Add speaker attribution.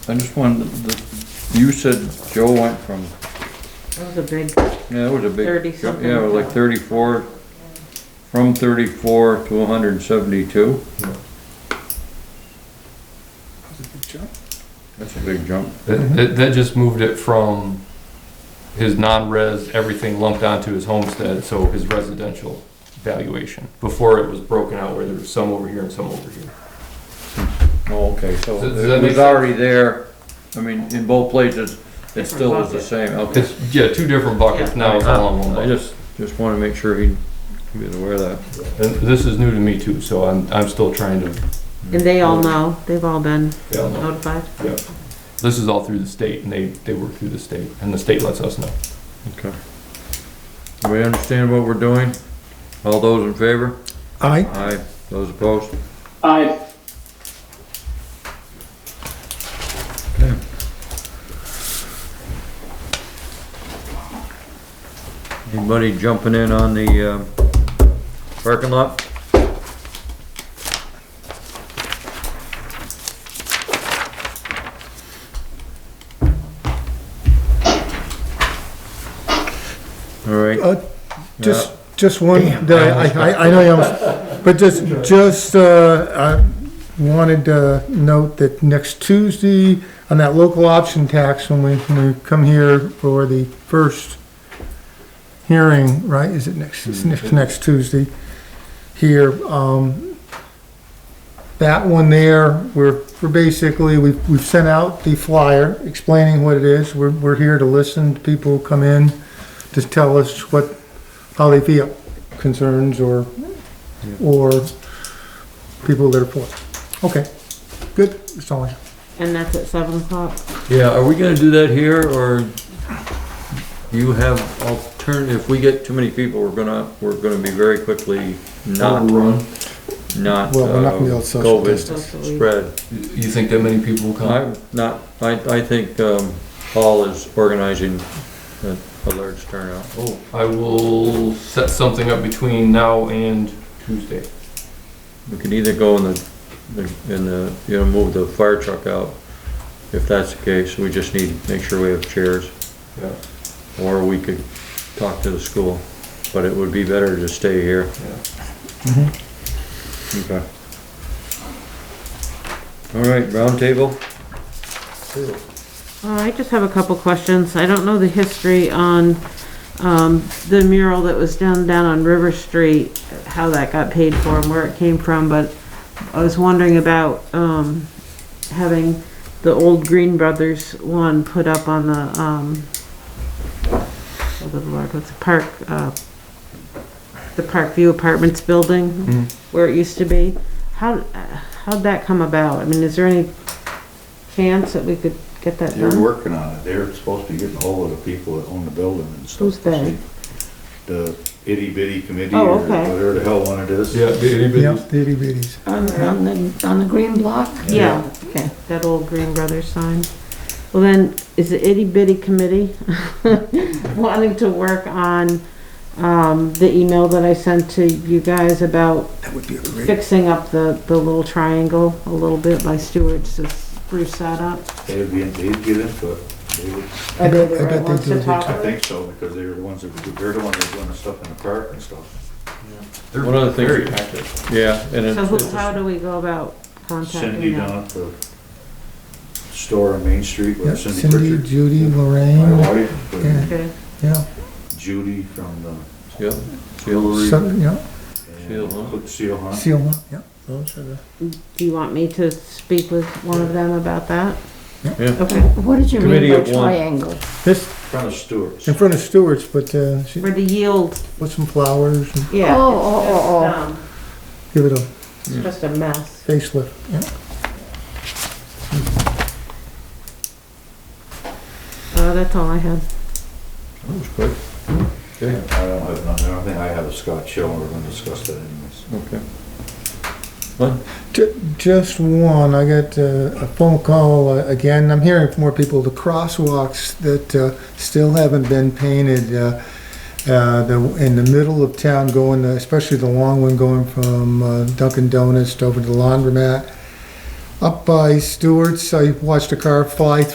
Speaker 1: I just wanted, the, you said Joe went from,
Speaker 2: That was a big,
Speaker 1: yeah, that was a big.
Speaker 2: 30-something.
Speaker 1: Yeah, it was like thirty-four, from thirty-four to hundred and seventy-two. That's a big jump.
Speaker 3: That, that- that just moved it from his non-res, everything lumped onto his homestead, so his residential valuation. Before it was broken out where there was some over here and some over here.
Speaker 1: Oh, okay, so
Speaker 3: Does- does that
Speaker 1: it
Speaker 3: make
Speaker 1: was
Speaker 3: sense?
Speaker 1: already there, I mean, in both places, it still is the
Speaker 2: bucket.
Speaker 1: same, okay.
Speaker 3: It's, yeah, two different buckets, now it's all in one
Speaker 1: I
Speaker 3: bucket.
Speaker 1: just, just wanna make sure he, he was aware of that.
Speaker 3: And this is new to me too, so I'm, I'm still trying to,
Speaker 2: and they all know, they've all been
Speaker 3: They all know.
Speaker 2: notified.
Speaker 3: yeah. This is all through the state and they, they work through the state and the state lets us know.
Speaker 1: Okay. Do we understand what we're doing? All those in favor?
Speaker 4: Aye.
Speaker 1: Aye. Those opposed?
Speaker 5: Aye.
Speaker 1: Anybody jumping in on the, um, parking lot? All right.
Speaker 4: Uh, Just, just one, that I, I, I know, you almost- but just, just, uh, I wanted to note that next Tuesday, on that local option tax, when we, when we come here for the first hearing, right, is it next, it's next, next Tuesday here, um, that one there, we're, we're basically, we've, we've sent out the flyer explaining what it is, we're, we're here to listen to people who come in to tell us what, how they feel, concerns or, or people that are poor. Okay, good, that's all I have.
Speaker 2: And that's at seven o'clock.
Speaker 1: Yeah, are we gonna do that here, or you have altern, if we get too many people, we're gonna, we're gonna be very quickly not, not,
Speaker 4: Well, we're not
Speaker 1: uh,
Speaker 4: gonna be able to social
Speaker 1: COVID
Speaker 4: distance.
Speaker 2: Socially.
Speaker 1: spread.
Speaker 3: You you think that many people will come?
Speaker 1: I'm not, I, I think, um, Paul is organizing a, a large turnout.
Speaker 3: Oh, I will set something up between now and Tuesday.
Speaker 1: We can either go in the, in the, you know, move the fire truck out, if that's the case, we just need to make sure we have chairs.
Speaker 3: Yeah.
Speaker 1: Or we could talk to the school, but it would be better to stay here. Okay. All right, round table.
Speaker 2: Uh, I just have a couple questions. I don't know the history on, um, the mural that was down, down on River Street, how that got paid for and where it came from, but I was wondering about, um, having the old Green Brothers one put up on the, um, oh, good Lord, what's the park, uh, the Park View Apartments building, where it used to be. How, how'd that come about? I mean, is there any chance that we could get that done?
Speaker 6: They're working on it. They're supposed to be getting hold of the people that own the building and stuff.
Speaker 2: Who's they?
Speaker 6: The itty bitty committee
Speaker 2: Oh,
Speaker 6: or
Speaker 2: okay.
Speaker 6: whatever the hell one it is.
Speaker 3: Yeah, anybody?
Speaker 4: Yep, the itty bitties.
Speaker 7: On, on the, on the green block?
Speaker 2: Yeah.
Speaker 7: Okay.
Speaker 2: That old Green Brothers sign. Well then, is the itty bitty committee wanting to work on, um, the email that I sent to you guys about
Speaker 4: That would be a great.
Speaker 2: fixing up the, the little triangle a little bit by Stewart's, to spruce that up?
Speaker 6: They'd be, in- they'd get into it. They would,
Speaker 2: Are they the
Speaker 4: I bet
Speaker 2: right
Speaker 4: they
Speaker 2: ones
Speaker 4: do,
Speaker 2: to
Speaker 4: they
Speaker 2: talk
Speaker 6: I
Speaker 2: with?
Speaker 6: think so, because they were the ones that, were- they're the ones that were doing the stuff in the park and stuff.
Speaker 3: They're
Speaker 1: One other thing-
Speaker 3: Very active.
Speaker 1: Yeah, and
Speaker 2: So who,
Speaker 1: it's,
Speaker 2: how do we go about
Speaker 6: Cindy
Speaker 2: contacting them?
Speaker 6: down at the store on Main Street
Speaker 4: Yep,
Speaker 6: with Cindy
Speaker 4: Cindy,
Speaker 6: Pritchard.
Speaker 4: Judy,
Speaker 6: My
Speaker 4: Lorraine,
Speaker 6: wife, and
Speaker 4: Yeah.
Speaker 2: Okay,
Speaker 4: yeah,
Speaker 6: Judy from the.
Speaker 1: yeah,
Speaker 4: so, yeah,
Speaker 1: Seal Hunt.
Speaker 6: Cook Seal Hunt.
Speaker 4: seal one, yeah. Those are the.
Speaker 2: do you want me to speak with one of them about that?
Speaker 1: Yeah.
Speaker 2: Okay,
Speaker 7: What did you
Speaker 1: Committee
Speaker 7: mean by
Speaker 1: of one.
Speaker 7: triangle?
Speaker 4: This,
Speaker 6: Front of Stewart's.
Speaker 4: in front of Stewart's, but, uh, she
Speaker 2: for the yield,
Speaker 4: put some flowers and
Speaker 2: yeah.
Speaker 7: Oh,
Speaker 2: it's
Speaker 7: oh,
Speaker 2: just,
Speaker 7: oh, oh.
Speaker 2: um,
Speaker 4: give it a
Speaker 2: It's just a mess.
Speaker 4: facelift, yeah.
Speaker 2: Uh, that's all I had.
Speaker 1: That was quick.
Speaker 6: I don't have, nothing. I don't think I have a Scott Shell. We're gonna discuss that anyways.
Speaker 1: Okay.
Speaker 4: Ju- Just one, I got uh, a phone call, uh, again, I'm hearing from more people, the crosswalks that uh, still haven't been painted, uh, uh, the- in the middle of town going, uh, especially the long one going from uh, Dunkin' Donuts over to the laundromat. up by Stewart's, I watched a car fly